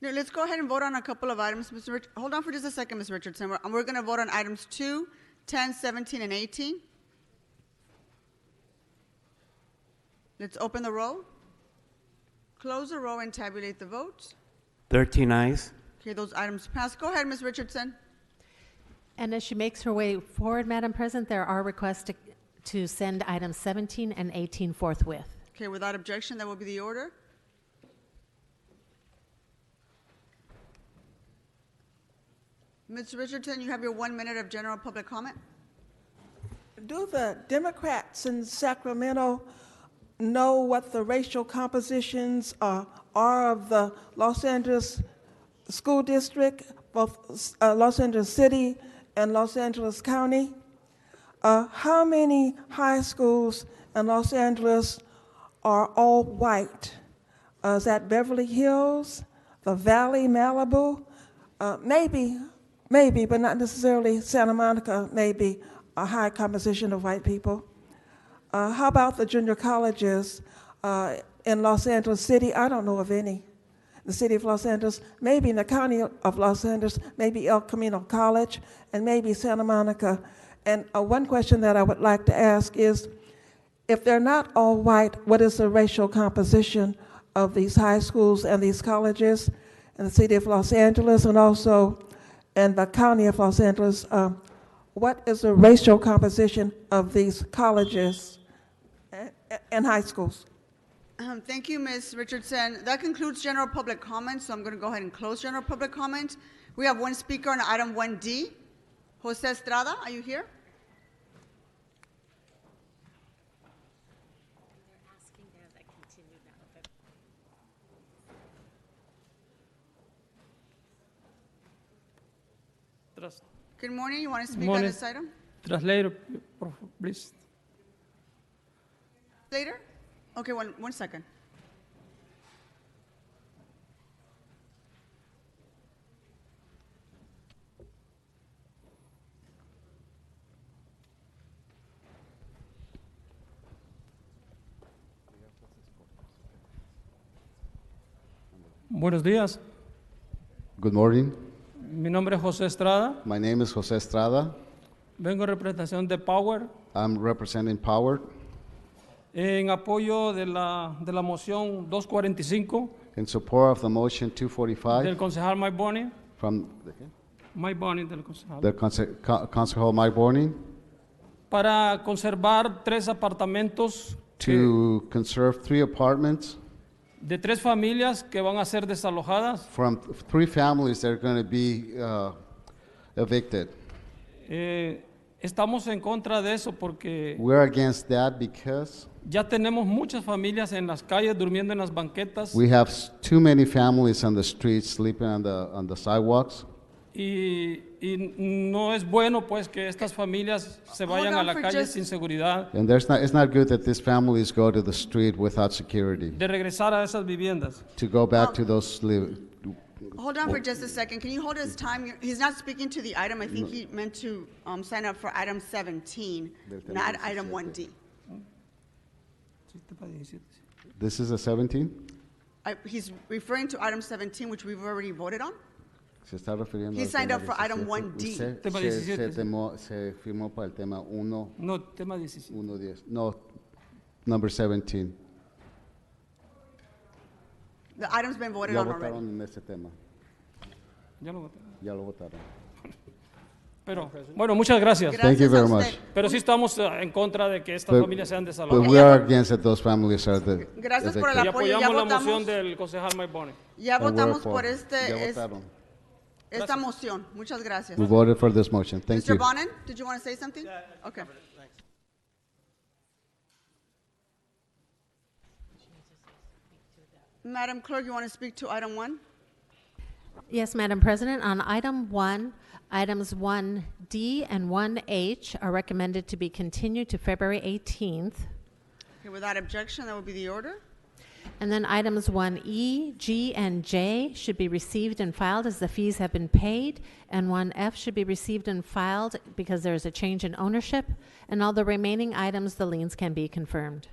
No, let's go ahead and vote on a couple of items, Mr. Rich, hold on for just a second, Ms. Richardson. We're, we're gonna vote on items two, ten, seventeen, and eighteen. Let's open the roll, close the roll, and tabulate the votes. 13 eyes. Okay, those items pass. Go ahead, Ms. Richardson. And as she makes her way forward, Madam President, there are requests to, to send items 17 and 18 forthwith. Okay, without objection, that will be the order. Ms. Richardson, you have your one minute of general public comment. Do the Democrats in Sacramento know what the racial compositions uh, are of the Los Angeles School District, both uh, Los Angeles City and Los Angeles County? Uh, How many high schools in Los Angeles are all white? Uh, Is that Beverly Hills, the Valley, Malibu? Uh, Maybe, maybe, but not necessarily Santa Monica, maybe a high composition of white people. Uh, how about the junior colleges uh, in Los Angeles City? I don't know of any. The city of Los Angeles, maybe in the county of Los Angeles, maybe El Camino College, and maybe Santa Monica. And uh, one question that I would like to ask is if they're not all white, what is the racial composition of these high schools and these colleges in the city of Los Angeles and also in the county of Los Angeles? Um, what is the racial composition of these colleges and, and high schools? Um, Thank you, Ms. Richardson. That concludes general public comment, so I'm going to go ahead and close general public comment. We have one speaker on item 1D. Jose Estrada, are you here? Tras- Good morning. You want to speak on Morning. this item Translator, por favor, please. later? Okay, one, one second. Buenos días. Good morning. Mi nombre es José Estrada. My name is Jose Estrada. Vengo en representación de Power I'm representing Power en apoyo de la, de la moción 245 in support of the motion del 245 concejal Mike Bonney. from Mike Bonney del concejal. the Conce- Co- Concejal Mike Borning Para conservar tres apartamentos eh, to conserve three apartments de tres familias que van a ser desalojadas. from th- three families that are going to be uh, evicted. Eh, estamos en contra de eso porque We're against that because ya tenemos muchas familias en las calles durmiendo en las banquetas. we have s- too many families on the streets sleeping on the, on the sidewalks. Y, y no es bueno pues que estas familias se Hold vayan on a la for calle just- sin seguridad And there's not, it's not good that these families go to the street without security de regresar a esas viviendas. to go back to those li- Hold on for just a second. Can you hold his time? You're- He's not speaking to the item. I think he meant to um, sign up for item 17, Del tema not 17. item 1D. This is a 17. I- He's referring to item 17, which we've already voted on. Se está refiriendo He al signed tema up for item 17. 1D. Usted Tema se- 17, Se, sí. temó- se firmó para el tema 1, No, tema 17. 10. No, number 17. The item's been voted Ya on already. votaron en este tema. Ya lo voté. Ya lo votaron. Pero bueno, muchas gracias. Thank Gracias you a very usted. much. Pero sí estamos eh, en contra de que estas But- familias sean But desalojadas. we are against that those families are the. Gracias por el Y evicted. pues, apoyo, ya apoyamos la votamos. moción del concejal Mike Bonney. Ya And we're votamos for- por Ya este, es- votaron. esta moción. Muchas gracias. We voted for this motion. Thank Mr. you. Bonin, did you want to say something? Okay. Madam Clerk, you want to speak to item one? Yes, Madam President, on item one, items 1D and 1H are recommended to be continued to February 18th. Okay, without objection, that will be the order. And then items 1E, G, and J should be received and filed as the fees have been paid, and 1F should be received and filed because there is a change in ownership, and all the remaining items, the liens can be confirmed.